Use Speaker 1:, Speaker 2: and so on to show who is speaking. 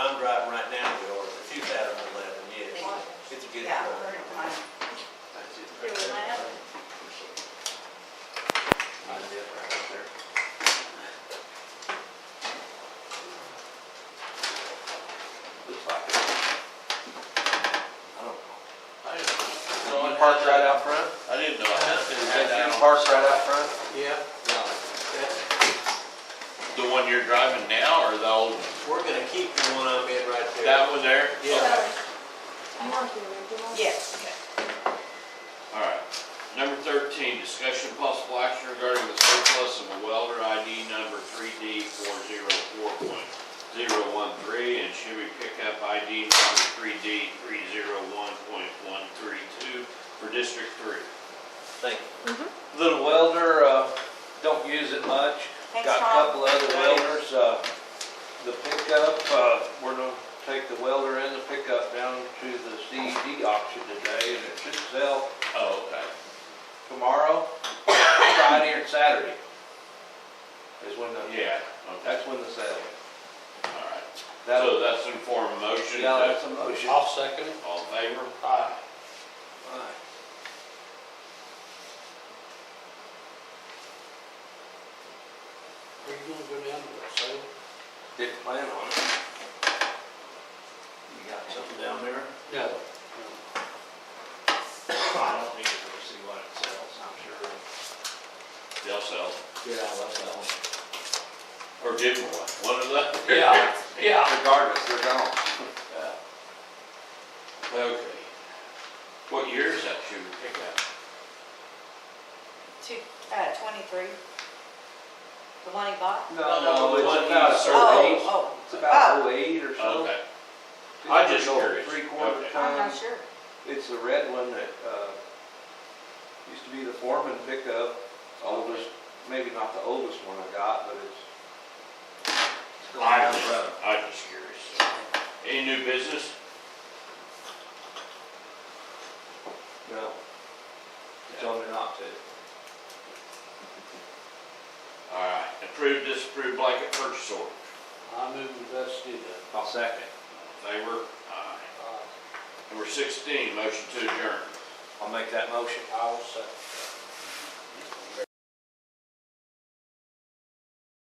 Speaker 1: the property. I don't know.
Speaker 2: I didn't know.
Speaker 1: You parked right out front?
Speaker 2: I didn't know. I had to
Speaker 1: Is
Speaker 2: head
Speaker 1: that you
Speaker 2: down.
Speaker 1: parked right out front?
Speaker 3: Yeah,
Speaker 1: No.
Speaker 3: that,
Speaker 2: The one you're driving now or the old,
Speaker 3: we're gonna keep the one I'm in right there.
Speaker 2: that one there?
Speaker 3: Yeah.
Speaker 4: I want the original.
Speaker 5: Yes.
Speaker 2: All right. Number thirteen, discussion of possible action regarding the surplus of a welder ID number three D four zero four point zero one three and Chevy pickup ID number three D three zero one point one three two for District Three.
Speaker 1: Thank you. Little welder, uh, don't use it much.
Speaker 5: Thanks,
Speaker 1: Got a
Speaker 5: Tom.
Speaker 1: couple other welders, uh, the pickup, uh, we're gonna take the welder and the pickup down to the CED auction today and it should sell
Speaker 2: Oh, okay.
Speaker 1: tomorrow, Friday or Saturday. Is when the,
Speaker 2: Yeah, okay,
Speaker 1: that's when the sale.
Speaker 2: all right.
Speaker 1: That'll,
Speaker 2: So that's in form of motion.
Speaker 1: yeah, that's a motion.
Speaker 3: I'll second it.
Speaker 2: All in favor?
Speaker 3: Aye. Are you gonna go down to that sale?
Speaker 1: Didn't plan on it.
Speaker 3: You got something down there?
Speaker 1: No.
Speaker 3: I don't need to go see what it sells, I'm sure.
Speaker 2: They'll sell,
Speaker 3: Yeah, that's that one.
Speaker 2: or give them one, one of the.
Speaker 3: Yeah, yeah.
Speaker 1: Regardless, they're gone.
Speaker 2: Okay. What year is that Chevy pickup?
Speaker 5: Two, uh, twenty-three. The one he bought?
Speaker 2: No, no, the one
Speaker 1: It's about
Speaker 2: you
Speaker 1: a
Speaker 2: served.
Speaker 1: survey.
Speaker 5: Oh,
Speaker 1: It's about
Speaker 5: Oh.
Speaker 1: 08 or so.
Speaker 2: Okay, I just
Speaker 1: Old,
Speaker 2: curious.
Speaker 1: Three quarter
Speaker 2: Okay.
Speaker 5: oh, I'm
Speaker 1: ton.
Speaker 5: not sure.
Speaker 1: It's the red one that, uh, used to be the foreman pickup, oldest, maybe not the oldest one I got, but it's. it's going
Speaker 2: I
Speaker 1: down
Speaker 2: just,
Speaker 1: the road.
Speaker 2: I just curious. Any new business?
Speaker 1: No. Tell me not to.
Speaker 2: All right, approved, disapproved blanket purchase order.
Speaker 3: I move the best do that.
Speaker 1: I'll second.
Speaker 2: All in Favor? Aye. Number uh, sixteen, motion to adjourn.
Speaker 1: I'll make that motion.
Speaker 3: I'll second.